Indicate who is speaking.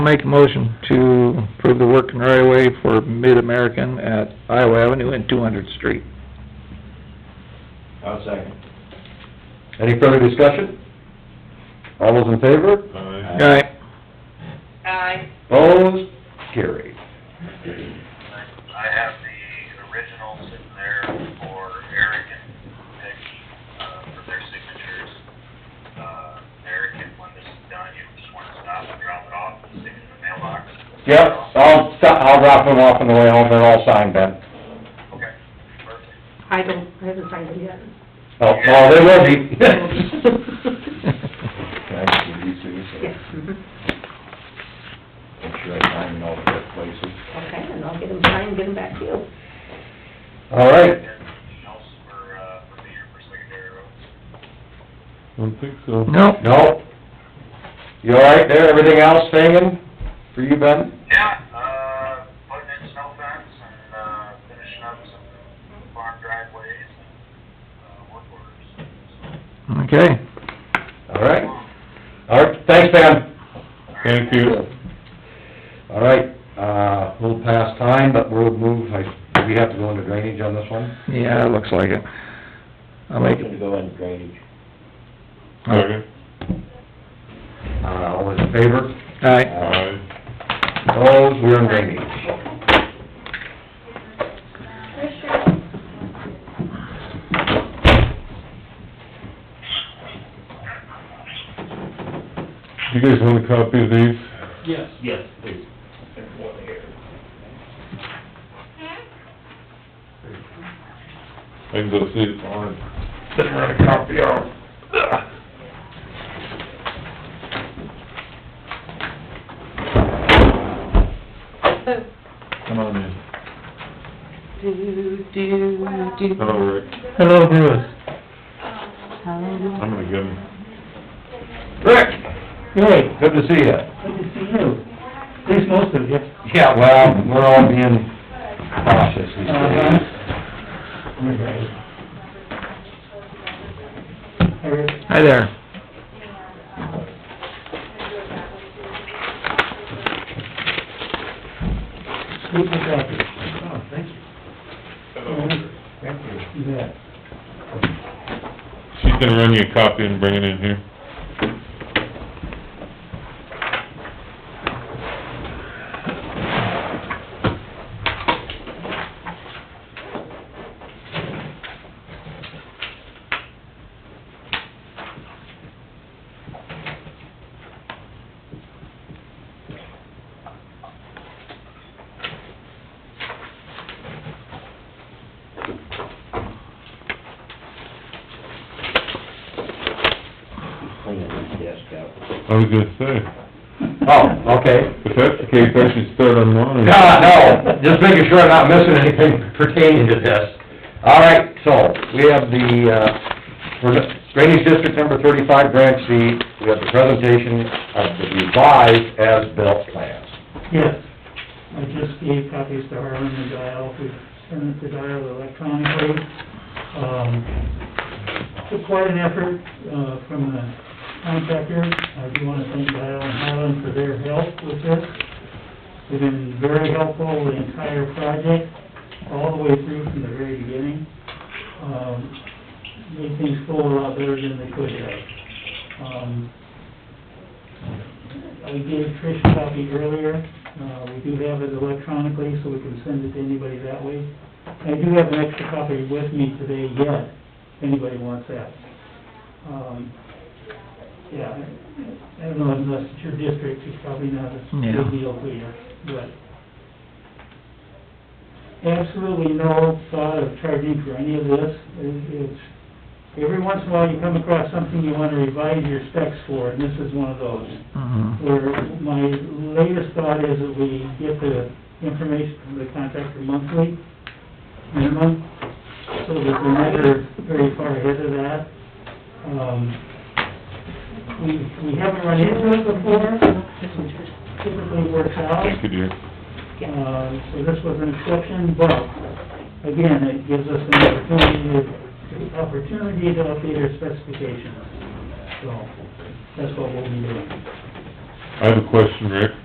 Speaker 1: Make a motion to approve the work in right of way for Mid-American at Iowa Avenue and two hundredth street.
Speaker 2: I'll second.
Speaker 3: Any further discussion? All those in favor?
Speaker 2: Aye.
Speaker 1: Aye.
Speaker 4: Aye.
Speaker 3: Opposed? Carried.
Speaker 5: I have the originals in there for Eric and Peggy, uh, for their signatures. Uh, Eric, and when this is done, you just wanna stop and drop it off, and stick it in the mailbox.
Speaker 3: Yep, I'll, si- I'll drop them off on the way home, they're all signed then.
Speaker 5: Okay, perfect.
Speaker 4: I don't, I haven't signed it yet.
Speaker 3: Oh, oh, they will be.
Speaker 4: Yes, mhm.
Speaker 3: Make sure I sign in all the right places.
Speaker 4: Okay, and I'll get them signed, and get them back to you.
Speaker 3: All right,
Speaker 5: Anything else for, uh, for Peter for secondary roads?
Speaker 6: Don't think so.
Speaker 1: Nope.
Speaker 3: no. You all right there, everything else hanging for you, Ben?
Speaker 5: Yeah, uh, putting in snow fence and, uh, finishing up some farm driveways and, uh, work orders, so.
Speaker 1: Okay.
Speaker 3: All right, all right, thanks, Ben.
Speaker 6: Thank you.
Speaker 3: All right, uh, a little past time, but we'll move, I, we have to go into drainage on this one?
Speaker 1: Yeah, it looks like it. I'll make
Speaker 2: Motion to
Speaker 1: it.
Speaker 2: go into drainage.
Speaker 6: Second.
Speaker 3: Uh, all those in favor?
Speaker 1: Aye.
Speaker 6: Aye.
Speaker 3: Opposed, we're in drainage.
Speaker 6: You guys want a copy of these? Yes. Yes, please. I can go see the barn. Didn't run a copy of. Come on in.
Speaker 4: Do, do, do.
Speaker 6: Hello, Rick.
Speaker 1: Hello, Bruce.
Speaker 6: I'm gonna give him,
Speaker 3: Rick? Hey. Good to see you.
Speaker 7: Good to see you. At least most of you.
Speaker 3: Yeah, well, we're all being cautious these
Speaker 7: Uh-huh.
Speaker 3: days.
Speaker 7: Eric,
Speaker 1: Hi there.
Speaker 7: Luke McCracken. Oh, thank you. Thank you. You bet.
Speaker 6: she's gonna run you a copy and bring it in here.
Speaker 2: Clean this desk out.
Speaker 6: I was gonna say,
Speaker 3: Oh, okay.
Speaker 6: if that's the case, I should start on mine.
Speaker 3: No, no, just making sure I'm not missing anything pertaining to this. All right, so, we have the, uh, for the drainage district number thirty-five, branch C, we have the presentation of the revised as-built plans.
Speaker 7: Yes, I just gave copies to Harlan and Dial, we sent it to Dial electronically. Um, took quite an effort, uh, from the contractor, I do wanna thank Dial and Harlan for their help with this. They've been very helpful the entire project, all the way through from the very beginning. Um, made things go a lot better than they could have. Um, I gave Trish a copy earlier, uh, we do have it electronically, so we can send it to anybody that way. I do have an extra copy with me today yet, if anybody wants that. Um, yeah, I don't know, unless it's your district, it's probably not a
Speaker 1: Yeah.
Speaker 7: big deal for you, but... Absolutely no thought of charging for any of this, It- it's, every once in a while you come across something you wanna revise your specs for, and this is one of those
Speaker 1: Mhm.
Speaker 7: where my latest thought is that we get the information from the contractor monthly, minimum, so that we're never very far ahead of that. Um, we, we haven't run into it before, typically works out.
Speaker 6: Thank you, dear.
Speaker 7: Uh, so this was an exception, but again, it gives us an opportunity, to- opportunity to update our specifications. So, that's what we'll be doing.
Speaker 6: I have a question, Rick.